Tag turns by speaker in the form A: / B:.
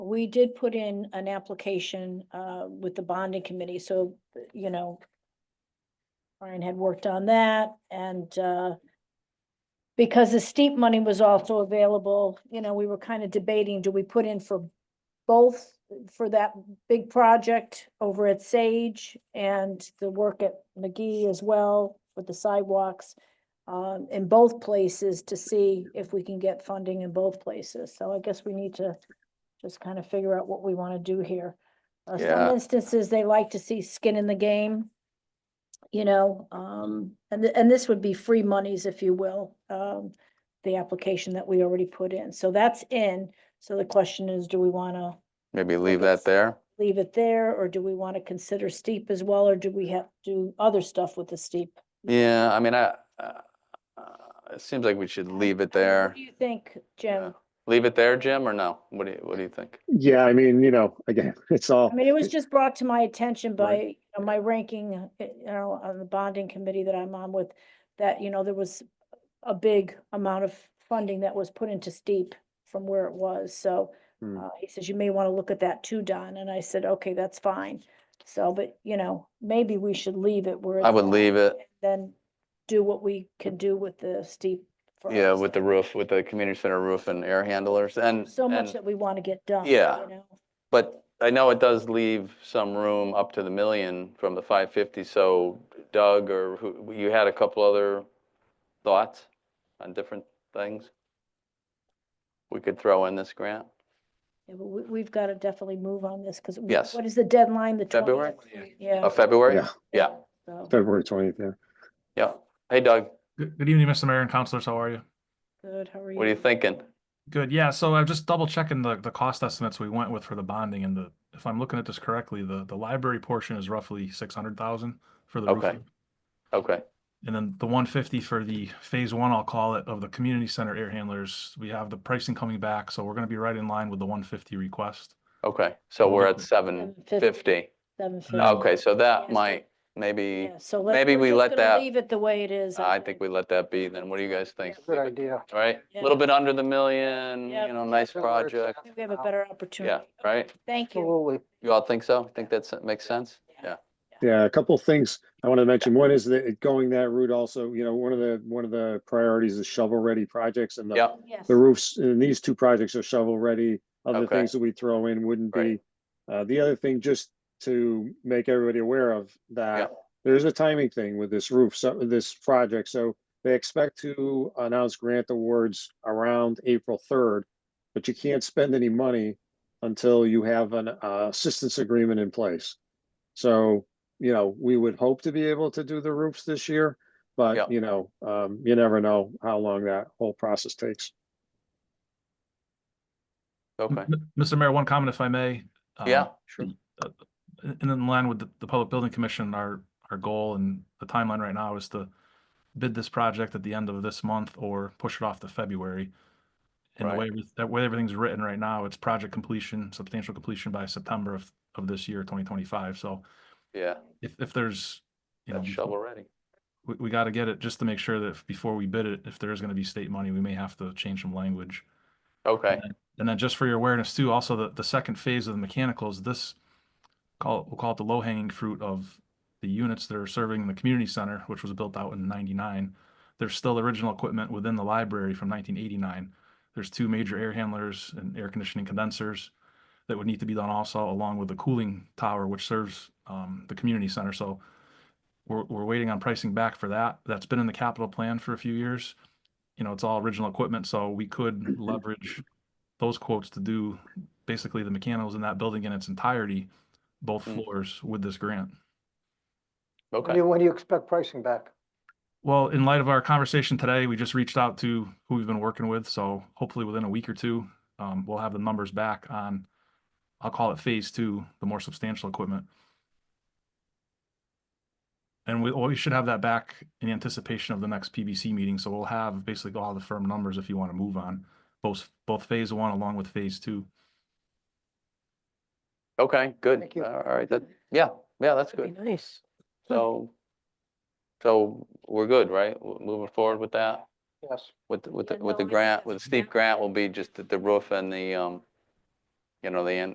A: we did put in an application uh with the bonding committee, so, you know. Brian had worked on that and uh. Because the steep money was also available, you know, we were kind of debating, do we put in for both? For that big project over at Sage and the work at McGee as well with the sidewalks. Um, in both places to see if we can get funding in both places, so I guess we need to just kind of figure out what we want to do here. Uh,
B: Yeah.
A: Some instances, they like to see skin in the game. You know, um, and, th- and this would be free monies, if you will, um, the application that we already put in. So that's in. So the question is, do we want to
B: Maybe leave
A: it's-
B: that there?
A: leave it there, or do we want to consider steep as well, or do we have to do other stuff with the steep?
B: Yeah, I mean, I, uh, uh, it seems like we should
A: I mean,
B: leave it
A: what
B: there.
A: Do you think,
B: Yeah.
A: Jim?
B: Leave it there, Jim, or no? What do you, what do you think?
C: Yeah, I mean, you know, again, it's all,
A: I mean, it was just brought to my attention by,
B: Right.
A: you know, my ranking, uh, you know, on the bonding committee that I'm on with, that, you know, there was a big amount of funding that was put into steep from where it was, so
C: Hmm.
A: uh, he says, you may want to look at that too, Don, and I said, okay, that's fine. So, but, you know, maybe we should leave it where.
B: I
A: it's
B: would
A: at
B: leave it,
A: and Then do what we can do with the steep. for
B: yeah,
A: us.
B: with the roof, with the community center roof and air handlers and,
A: So much
B: and,
A: that we want to get done.
B: Yeah.
A: you know?
B: but I know it does leave some room up to the million from the five fifty, so Doug or who, you had a couple other thoughts on different things? We could throw in this grant?
A: Yeah, but we, we've got to definitely move on this, because.
B: Yes.
A: What is the deadline, the twentieth?
B: February?
A: Yeah.
B: Of February?
C: yeah,
B: Yeah,
A: so,
C: February twentieth, yeah.
B: yeah. Hey Doug,
D: Good good evening, Mr. Mayor and Councilors. How are you?
A: Good, how are you?
B: what are you thinking?
D: Good. Yeah, so I'm just double checking the, the cost estimates we went with for the bonding and the, if I'm looking at this correctly, the, the library portion is roughly six hundred thousand for the
B: Okay.
D: roofing.
B: Okay,
D: And then the one fifty for the phase one, I'll call it, of the community center air handlers. We have the pricing coming back, so we're gonna be right in line with the one fifty request.
B: okay, so
D: Well,
B: we're
D: look-
B: at seven fifty.
A: Seven fifty.
D: No.
B: Okay, so that
A: Yes,
B: might, maybe,
A: Yeah, so let-
B: maybe
A: we're
B: we
A: just
B: let
A: gonna
B: that-
A: Leave it the way it is.
B: I think we let that be then. What do you guys think?
E: Good idea.
B: All right,
A: Yeah.
B: a little bit under the million,
A: Yeah.
B: you know, nice
E: That works
B: project.
A: I think We have a better opportunity.
B: Yeah, right?
A: Thank you.
E: Absolutely.
B: You all think so? Think that's, makes sense? Yeah,
C: Yeah, a couple things I want to mention. One is that it- going that route also, you know, one of the, one of the priorities is shovel-ready projects and the,
B: yeah,
A: Yes.
C: the roofs, and these two projects are shovel-ready. Other
B: Okay.
C: things that we throw in wouldn't be.
B: Right.
C: Uh, the other thing, just to make everybody aware of
B: Yeah.
C: that, there is a timing thing with this roof, so this project. So they expect to announce grant awards around April third, but you can't spend any money until you have an uh, assistance agreement in place. So, you know, we would hope to be able to do the roofs this year,
B: Yeah.
C: but you know, um, you never know how long that whole process takes.
B: okay.
D: M- Mr. Mayor, one comment if I may. Um,
B: Yeah, sure.
D: and and in line with the, the Public Building Commission, our, our goal and the timeline right now is to bid this project at the end of this month or push it off to February. And the
B: Right.
D: way, everyth- that way everything's written right now, it's project completion, substantial completion by September of, of this year, twenty twenty-five. So
B: Yeah,
D: if, if there's, you know,
B: that's
D: befo-
B: shovel ready.
D: we, we gotta get it just to make sure that if- before we bid it, if there is gonna be state money, we may have to change some language.
B: Okay,
D: And then just for your awareness too, also the, the second phase of the mechanicals, this call, we'll call it the low hanging fruit of the units that are serving the community center, which was built out in ninety-nine. There's still original equipment within the library from nineteen eighty-nine. There's two major air handlers and air conditioning condensers that would need to be done also, along with the cooling tower, which serves, um, the community center. So we're, we're waiting on pricing back for that. That's been in the capital plan for a few years. You know, it's all original equipment, so we could leverage those quotes to do basically the mechanicals in that building in its entirety, both
B: Mm.
D: floors with this grant.
E: When
B: okay,
E: do- when do you expect pricing back?
D: Well, in light of our conversation today, we just reached out to who we've been working with, so hopefully within a week or two, um, we'll have the numbers back on, I'll call it phase two, the more substantial equipment. And we, well, we should have that back in anticipation of the next PBC meeting, so we'll have basically all the firm numbers if you want to move on, both, both phase one along with phase two.
B: okay, good.
E: Thank you.
B: All right, that, yeah, yeah, that's
E: That'd
B: good.
E: be nice.
B: So, so we're good, right? We're Moving forward with that?
E: Yes.
B: With, the- with, the
A: Yeah,
B: with the
A: no, I think
B: grant,
A: that's
B: with the
A: a
B: steep
A: great
B: grant
A: idea.
B: will be just the- the roof and the, um, you know, the, an-